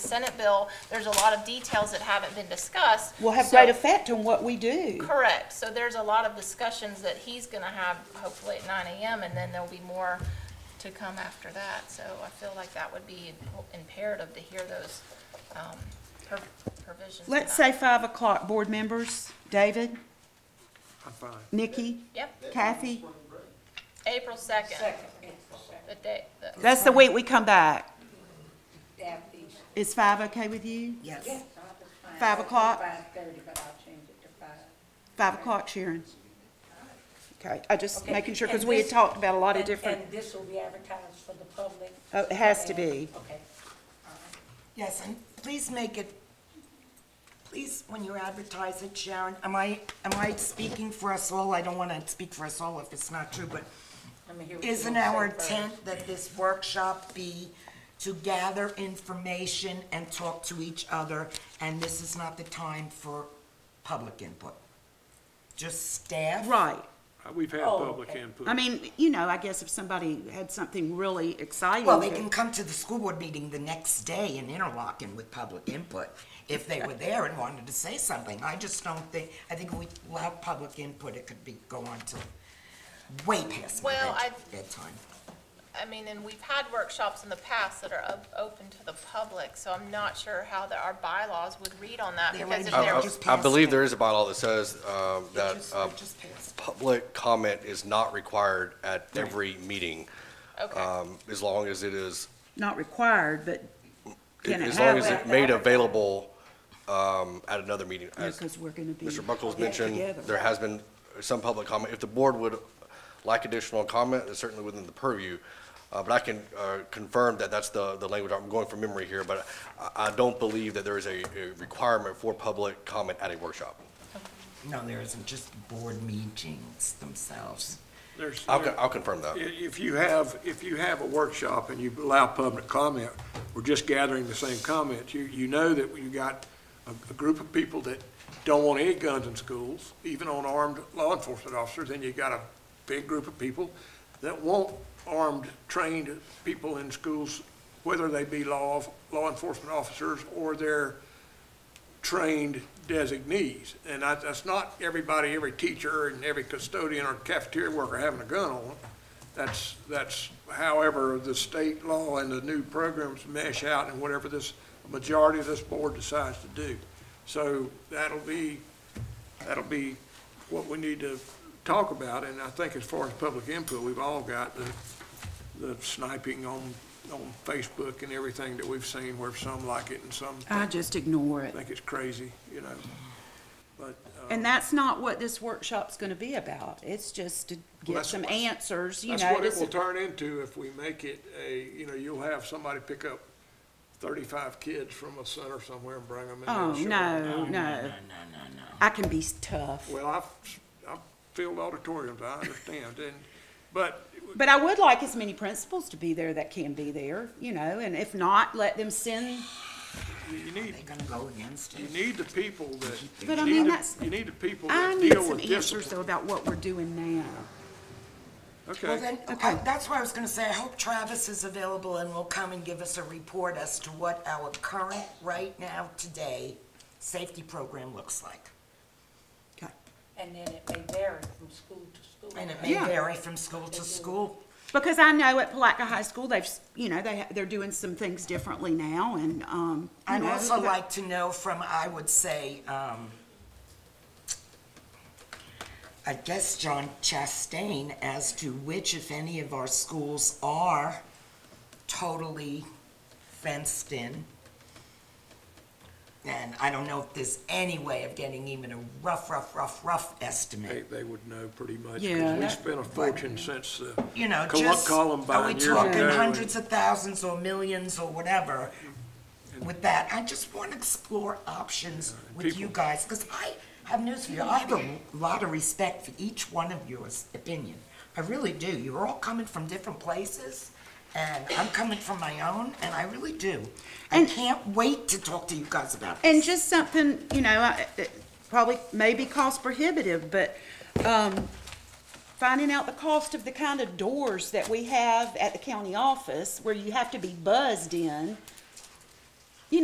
Senate bill, there's a lot of details that haven't been discussed. will have So- great effect on what we do. Correct, so there's a lot of discussions that he's gonna have hopefully at nine AM, and then there'll be more to come after that, so I feel like that would be imperative to hear those, um, per- provisions. Let's tonight. say five o'clock, board members, David, I'm fine. Nikki, Yep, Kathy. April second. The day, the. That's the week we come back. Daffy's. Is five okay with you? Yes. Five o'clock? Five thirty, but I'll change it to five. Five o'clock, Sharon. Okay, I just Okay, making sure, because and we had this- talked about a lot of And- different, And this will be advertised for the public? Oh, it has to be. Okay. Yes, and please make it, please, when you advertise it, Sharon, am I, am I speaking for us all? I don't want to speak for us all if it's not true, but Let me hear what you isn't wanna say our first. intent that this workshop be to gather information and talk to each other, and this is not the time for public input? Just staff? right. Uh, We've had Oh, public okay. input. I mean, you know, I guess if somebody had something really exciting. Well, they to- can come to the school board meeting the next day in Interlochen with public input, if they were there and wanted to say something. I just don't think, I think if we allow public input, it could be, go on till way past my Well, bed- I- bedtime. I mean, and we've had workshops in the past that are op- open to the public, so I'm not sure how the, our bylaws would read on that, They're because if already- they're. just I passed believe it. there is a bylaw that says um, that Just- uh, just passed. public comment is not required at every meeting, Okay, um, as long as it is, Not required, but Can it as long as happen? it's made available um, at another meeting. As because we're going to be. Mr. Buckles get mentioned, together. there has been some public comment. If the board would like additional comment, it's certainly within the purview. Uh, But I can uh, confirm that that's the, the language, I'm going from memory here, but I, I don't believe that there is a a requirement for public comment at a workshop. No, there isn't, just board meetings themselves. There's- I'll, there- con- I'll confirm that. i- If you have, if you have a workshop and you allow public comment, we're just gathering the same comments. You, you know that you got a, a group of people that don't want any guns in schools, even on armed law enforcement officers, and you got a big group of people that want armed, trained people in schools, whether they be law, of- law enforcement officers or their trained designees. And I- that's not everybody, every teacher and every custodian or cafeteria worker having a gun on. That's, that's however the state law and the new programs mesh out and whatever this, majority of this board decides to do. So that'll be, that'll be what we need to talk about. And I think as far as public input, we've all got the, the sniping on, on Facebook and everything that we've seen where some like it and some I just ignore it. think it's crazy, you know, but, uh, And that's not what this workshop's going to be about. It's just to get that's some what- answers, you know. that's what it this will is- turn into if we make it a, you know, you'll have somebody pick up thirty-five kids from a center somewhere and bring them in. Oh, and show them. no, no. I can be tough. Well, I've, I've filled auditoriums, I understand, and, but But I would like as many principals to be there that can be there, you know, and if not, let them send, you need, They're gonna go against you it. need the people that. But I you need mean, the- that's- You need the people I that need deal some with answers discipline. though about what we're doing now. Well, Okay, then, I- that's why I was gonna say, I hope Travis is available and will come and give us a report as to what our current, right now, today, safety program looks like. Okay. And then it may vary from school to school. And it may Yeah. vary from school to school. Because I know at Palatka High School, they've, s- you know, they, ha- they're doing some things differently now and, um. you I'd know, also but- like to know from, I would say, um, I guess John Chastain, as to which, if any, of our schools are totally fenced in. And I don't know if there's any way of getting even a rough, rough, rough, rough they, estimate. they would know pretty much, Yeah, because we that- spent a fortune since the You know, Col- just, are we Columbine years ago. talking and- hundreds of thousands or millions or whatever? with that. I just want to explore options with you guys, because I have news for you. I have a lot of respect for each one of your opinion. I really do. You're all coming from different places, and I'm coming from my own, and I really do. I And- can't wait to talk to you guys about this. And just something, you know, I- it probably maybe cost prohibitive, but, um, finding out the cost of the kind of doors that we have at the county office where you have to be buzzed in